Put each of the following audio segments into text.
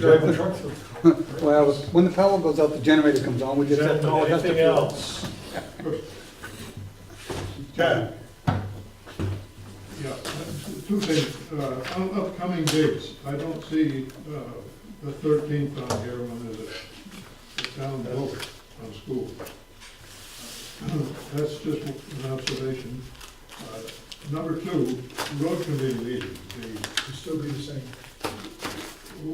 Drive the truck through. Well, when the power goes out, the generator comes on, we Is just have that to call it. anything else? Chad, Yeah, uh, two things, uh, up- upcoming dates, I don't see, uh, the thirteenth on here, when is it? The town vote on school. That's just an observation. Uh, Number two, road committee meeting, the, It'd still be the same.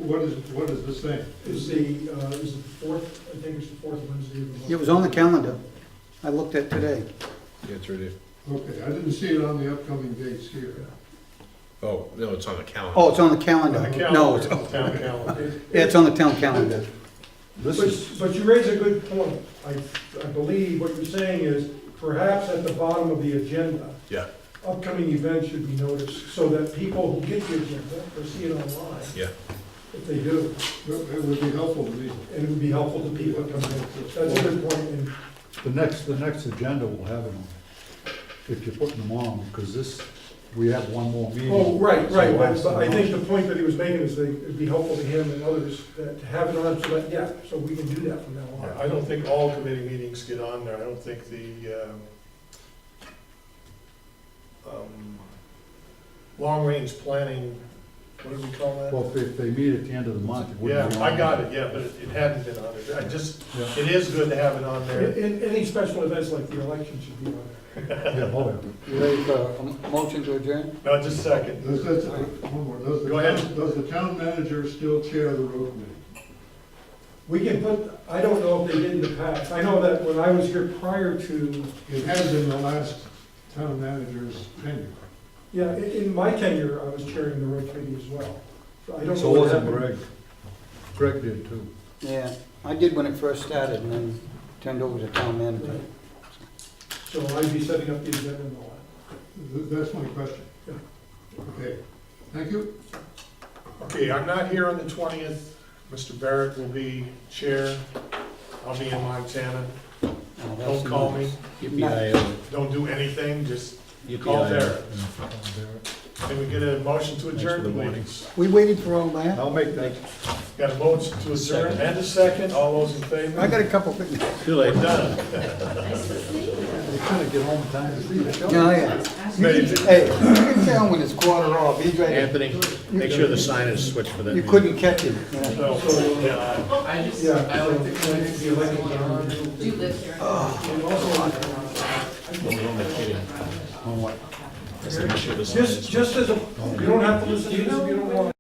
what is, what is this thing? Is the, uh, is the fourth, I think it's the fourth Wednesday of the month. It was on the calendar. I looked at today. Yeah, it's ready. Okay, I didn't see it on the upcoming dates here. Oh, no, it's on the calendar. Oh, it's on the calendar. on the No, it's, calendar, town calendar. yeah, it's on the town calendar. This But, but you raise a good point. I, I believe what you're saying is perhaps at the bottom of the agenda, Yeah, upcoming events should be noticed so that people who get the agenda or see it online, yeah. if they do, It it would be helpful to me. and it would be helpful to people that come in. That's a good point, and The next, the next agenda will have it on, if you're putting them on, because this, we have one more meeting. Oh, right, right, So but that's but I the- think the point that he was making is that it'd be helpful to him and others that to have it on, so that, yeah, so we can do that from now on. I don't think all committee meetings get on there, I don't think the, um, um, long-range planning, what do we call that? Well, if, if they meet at the end of the month, it Yeah, wouldn't be on. I got it, yeah, but it it hadn't been on there, I just, Yeah, it is good to have it on And- there. and any special events like the election should be on there. yeah, oh, yeah. You ready for a m- motion to adjourn? No, just a second, Does, that's, one more, does the, Go ahead. does the town manager still chair the road committee? We can put, I don't know if they did in the past, I know that when I was here prior to, It has been the last town manager's tenure. yeah, in, in my tenure, I was chairing the road committee as well. So I don't know So what wasn't happened. Greg. Greg did too. Yeah, I did when it first started and then turned over to town manager. So I'd be setting up the agenda and all Th- That's my question. Yeah. Okay, thank you. okay, I'm not here on the twentieth, Mr. Barrett will be chair, I'll be in Montana, Oh, that's don't call me, nice. don't do anything, just Yippee-ki-yo. call Barrett. Yeah. Can we get a motion to for adjourn, the warning. please? We waited for all that. I'll make that, Got a motion to adjourn Second. and a second, all those in favor? I got a couple things. Too late. Done. they kind of get home in time to see that. Yeah, Oh, yeah. Maybe. Hey, you can tell when it's quarter off. He's ready. Anthony, make sure the sign is switched for that. You meeting. couldn't catch him. yeah. So, Oh, yeah. I just, Yeah. I like the community, Yeah, like the going on. community. Do you live here? that. And also, I'm like, Just, just as a, you don't have to listen to this if you don't want.